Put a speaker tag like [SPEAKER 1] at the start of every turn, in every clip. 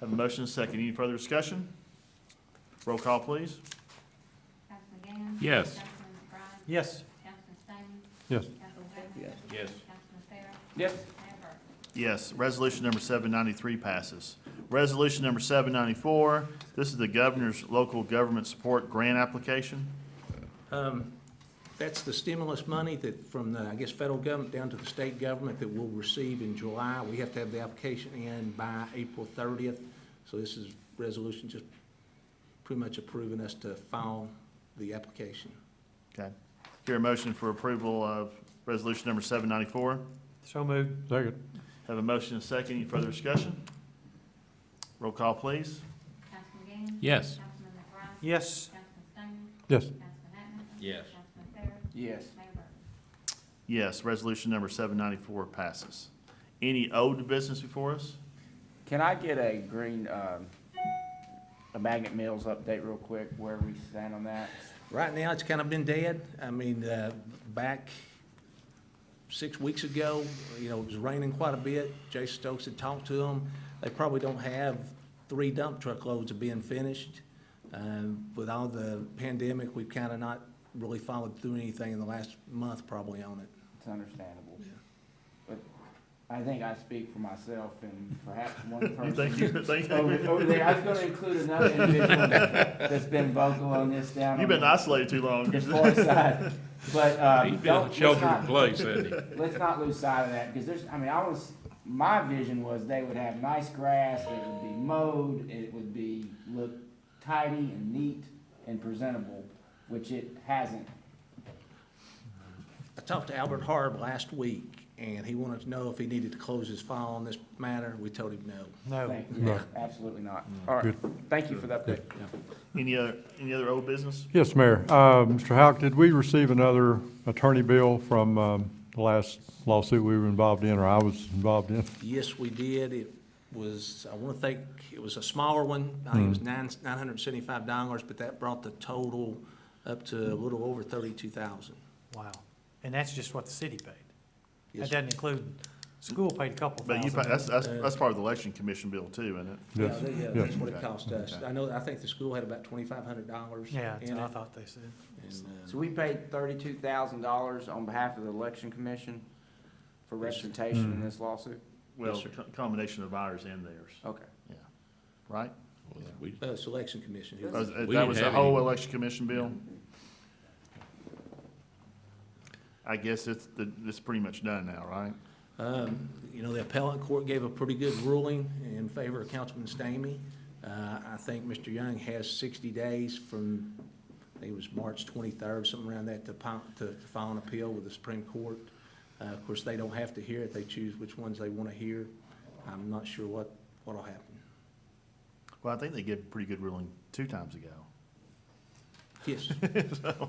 [SPEAKER 1] Have a motion and a second. Any further discussion? Roll call, please.
[SPEAKER 2] Councilman Gann?
[SPEAKER 3] Yes.
[SPEAKER 2] Councilman McBride?
[SPEAKER 4] Yes.
[SPEAKER 2] Councilman Stamey?
[SPEAKER 4] Yes.
[SPEAKER 2] Councilman Webb?
[SPEAKER 5] Yes.
[SPEAKER 3] Yes.
[SPEAKER 2] Councilman Farrell?
[SPEAKER 4] Yes.
[SPEAKER 2] Mayor Burton?
[SPEAKER 1] Yes, resolution number seven ninety-three passes. Resolution number seven ninety-four, this is the governor's local government support grant application.
[SPEAKER 6] Um, That's the stimulus money that, from the, I guess, federal government down to the state government that we'll receive in July. We have to have the application in by April 30th. So this is resolution just pretty much approving us to file the application.
[SPEAKER 1] Okay. Hear a motion for approval of resolution number seven ninety-four.
[SPEAKER 4] So moved. Second.
[SPEAKER 1] Have a motion and a second. Any further discussion? Roll call, please.
[SPEAKER 2] Councilman Gann?
[SPEAKER 3] Yes.
[SPEAKER 2] Councilman McBride?
[SPEAKER 4] Yes.
[SPEAKER 2] Councilman Stamey?
[SPEAKER 4] Yes.
[SPEAKER 2] Councilman Atkinson?
[SPEAKER 3] Yes.
[SPEAKER 2] Councilman Farrell?
[SPEAKER 5] Yes.
[SPEAKER 2] Mayor Burton?
[SPEAKER 1] Yes, resolution number seven ninety-four passes. Any old business before us?
[SPEAKER 5] Can I get a green, um, a Magnet Mills update real quick, where we stand on that?
[SPEAKER 6] Right now, it's kind of been dead. I mean, uh, back six weeks ago, you know, it was raining quite a bit. Jason Stokes had talked to them. They probably don't have three dump truck loads of being finished. Um, With all the pandemic, we've kind of not really followed through anything in the last month probably on it.
[SPEAKER 5] It's understandable.
[SPEAKER 6] Yeah.
[SPEAKER 5] But I think I speak for myself and perhaps one
[SPEAKER 1] You
[SPEAKER 5] person.
[SPEAKER 1] think you, think
[SPEAKER 5] Over,
[SPEAKER 1] you?
[SPEAKER 5] over there, I was gonna include another individual that's been vocal on this down.
[SPEAKER 1] You've
[SPEAKER 5] on
[SPEAKER 1] been
[SPEAKER 5] the-
[SPEAKER 1] isolated too long.
[SPEAKER 5] The far side, but, um,
[SPEAKER 3] He's been in
[SPEAKER 5] don't, let's
[SPEAKER 3] shelter in
[SPEAKER 5] not-
[SPEAKER 3] place, hasn't he?
[SPEAKER 5] let's not lose sight of that, because there's, I mean, I was, my vision was they would have nice grass, it would be mowed, it would be, look tidy and neat and presentable, which it hasn't.
[SPEAKER 6] I talked to Albert Harb last week, and he wanted to know if he needed to close his file on this matter. We told him no.
[SPEAKER 4] No.
[SPEAKER 5] Thank you, absolutely not. All right, thank you for the update.
[SPEAKER 1] Any other, any other old business?
[SPEAKER 7] Yes, Mayor. Uh, Mr. Houck, did we receive another attorney bill from um, the last lawsuit we were involved in, or I was involved in?
[SPEAKER 6] Yes, we did. It was, I want to think, it was a smaller one. I think it was
[SPEAKER 7] Hmm.
[SPEAKER 6] nine, nine hundred and seventy-five dollars, but that brought the total up to a little over thirty-two thousand.
[SPEAKER 4] Wow. And that's just what the city paid.
[SPEAKER 6] Yes,
[SPEAKER 4] That doesn't include, school paid a couple
[SPEAKER 1] But you,
[SPEAKER 4] thousand.
[SPEAKER 1] pa- that's, that's, that's part of the election commission bill too, isn't it?
[SPEAKER 6] Yeah,
[SPEAKER 7] Yes,
[SPEAKER 6] they- yeah,
[SPEAKER 7] yes.
[SPEAKER 6] that's what it cost us.
[SPEAKER 1] Okay.
[SPEAKER 6] I know, I think the school had about twenty-five hundred dollars.
[SPEAKER 4] Yeah, that's what I thought they said.
[SPEAKER 6] uh,
[SPEAKER 5] So we paid thirty-two thousand dollars on behalf of the election commission for representation in this lawsuit?
[SPEAKER 1] Well,
[SPEAKER 6] sir.
[SPEAKER 1] co- combination of ours and theirs,
[SPEAKER 5] Okay.
[SPEAKER 1] right?
[SPEAKER 3] We-
[SPEAKER 6] Uh, selection commission. who-
[SPEAKER 1] That was-
[SPEAKER 3] We
[SPEAKER 1] That
[SPEAKER 3] didn't
[SPEAKER 1] was the
[SPEAKER 3] have
[SPEAKER 1] whole
[SPEAKER 3] any.
[SPEAKER 1] election commission bill? I guess it's, the- it's pretty much done now, right?
[SPEAKER 6] Um, You know, the appellate court gave a pretty good ruling in favor of Councilman Stamey. Uh, I think Mr. Young has 60 days from, I think it was March 23rd, something around that, to pile- to to file an appeal with the Supreme Court. Uh, Of course, they don't have to hear it, they choose which ones they want to hear. I'm not sure what, what'll happen.
[SPEAKER 1] Well, I think they gave a pretty good ruling two times ago.
[SPEAKER 6] Yes,
[SPEAKER 1] So,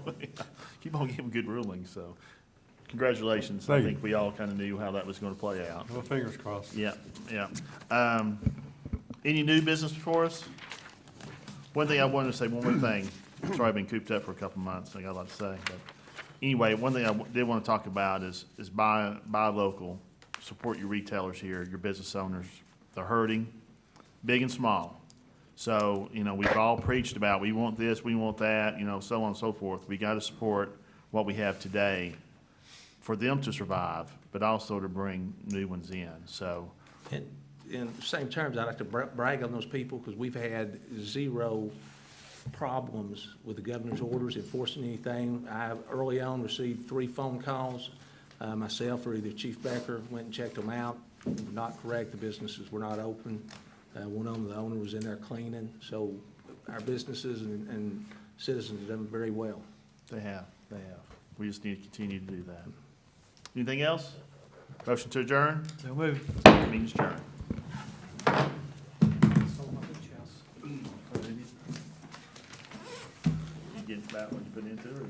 [SPEAKER 1] Keep on giving good rulings, so congratulations. I
[SPEAKER 7] Thank you.
[SPEAKER 1] think we all kind of knew how that was going to play out.
[SPEAKER 7] Well, fingers crossed.
[SPEAKER 1] Yeah, yeah. Um, any new business before us? One thing I wanted to say, one more thing. Sorry, I've been cooped up for a couple of months, I got a lot to say, but anyway, one thing I w- did want to talk about is, is buy, buy local. Support your retailers here, your business owners. They're hurting, big and small. So, you know, we've all preached about, we want this, we want that, you know, so on and so forth. We got to support what we have today for them to survive, but also to bring new ones in. So,
[SPEAKER 6] and in the same terms, I'd like to bra- brag on those people, because we've had zero problems with the governor's orders enforcing anything. I early on received three phone calls, uh, myself or either Chief Becker, went and checked them out. Not correct, the businesses were not open. Uh, One of them, the owner was in there cleaning, so our businesses and and citizens have done very well.
[SPEAKER 1] They have, they have. We just need to continue to do that. Anything else? Motion to adjourn?
[SPEAKER 4] So moved.
[SPEAKER 1] Means adjourn. You get that one you put into it, or you got-